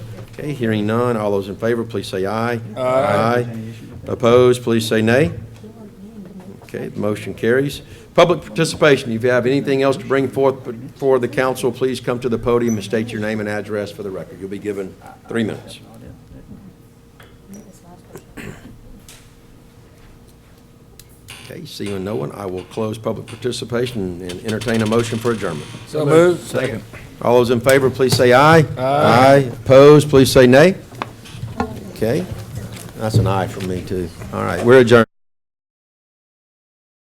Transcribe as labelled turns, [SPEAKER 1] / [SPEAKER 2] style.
[SPEAKER 1] Okay, hearing none, all those in favor, please say aye.
[SPEAKER 2] Aye.
[SPEAKER 1] Opposed, please say nay. Okay, the motion carries. Public participation, if you have anything else to bring forth for the council, please come to the podium and state your name and address for the record. You'll be given three minutes. Okay, seeing no one, I will close public participation and entertain a motion for adjournment.
[SPEAKER 2] So moved.
[SPEAKER 1] Second. All those in favor, please say aye.
[SPEAKER 2] Aye.
[SPEAKER 1] Opposed, please say nay. Okay, that's an aye from me, too. All right, we're adjourned.